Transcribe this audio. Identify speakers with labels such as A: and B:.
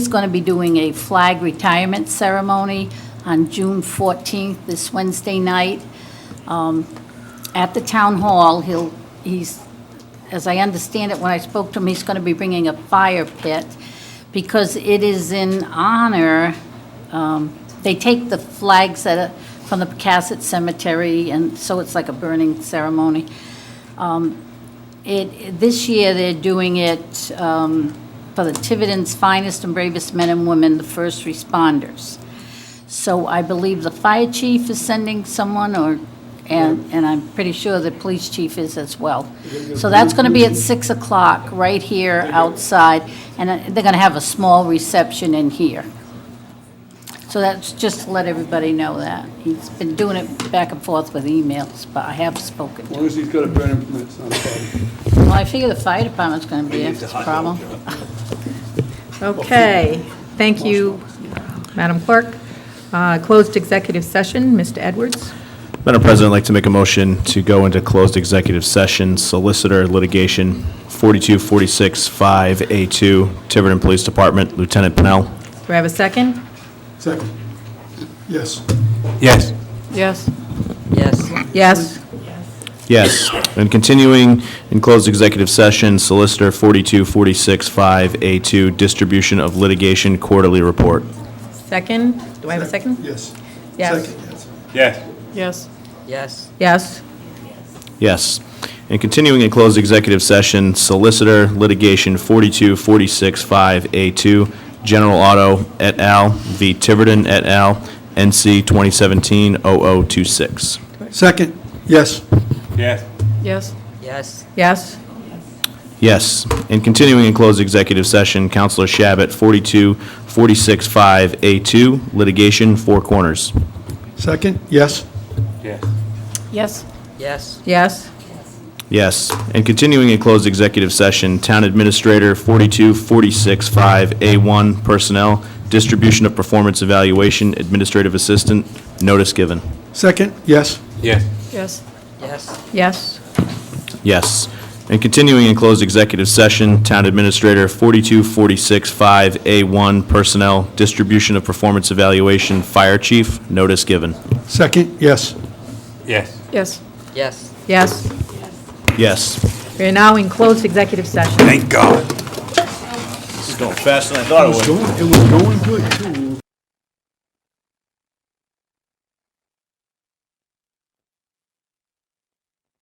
A: is going to be doing a flag retirement ceremony on June 14th, this Wednesday night, um, at the town hall. He'll, he's, as I understand it, when I spoke to him, he's going to be bringing a fire pit because it is in honor, um, they take the flags that are from the Pecasset Cemetery, and so it's like a burning ceremony. Um, It, this year, they're doing it um, for the Tiverton's finest and bravest men and women, the first responders. So I believe the fire chief is sending someone, or, and, and I'm pretty sure the police chief is as well. So that's going to be at 6 o'clock, right here outside, and uh, they're going to have a small reception in here. So that's, just to let everybody know that. He's been doing it back and forth with emails, but I have spoken to
B: As
A: him.
B: long as he's got a burning permit, it's not a problem.
A: Well, I figure the fire department's going to be a problem.
C: Okay, thank you, Madam Clerk. Uh, Closed executive session, Mr. Edwards.
D: Madam President, I'd like to make a motion to go into closed executive session, solicitor litigation, 42465A2, Tiverton Police Department, Lieutenant Pennell.
C: Do I have a second?
B: Second. Yes.
D: Yes.
C: Yes. Yes. Yes.
D: Yes. And continuing in closed executive session, solicitor 42465A2, distribution of litigation quarterly report.
C: Second? Do I have a second?
B: Yes.
C: Yes.
B: Second, yes.
C: Yes.
E: Yes.
C: Yes.
D: Yes. And continuing in closed executive session, solicitor litigation 42465A2, General Auto et al. v. Tiverton et al., NC 2017-0026.
B: Second, yes.
C: Yes.
E: Yes.
C: Yes.
D: Yes. And continuing in closed executive session, Counselor Shabbat 42465A2, litigation Four Corners.
B: Second, yes.
C: Yes.
E: Yes.
C: Yes.
D: Yes. And continuing in closed executive session, Town Administrator 42465A1 Personnel, Distribution of Performance Evaluation, Administrative Assistant, notice given.
B: Second, yes.
C: Yes.
E: Yes.
C: Yes.
D: Yes. And continuing in closed executive session, Town Administrator 42465A1 Personnel, Distribution of Performance Evaluation, Fire Chief, notice given.
B: Second, yes.
C: Yes.
E: Yes.
C: Yes.
D: Yes.
C: We are now in closed executive session.
D: This is going faster than I thought it would.
B: It was going good, too.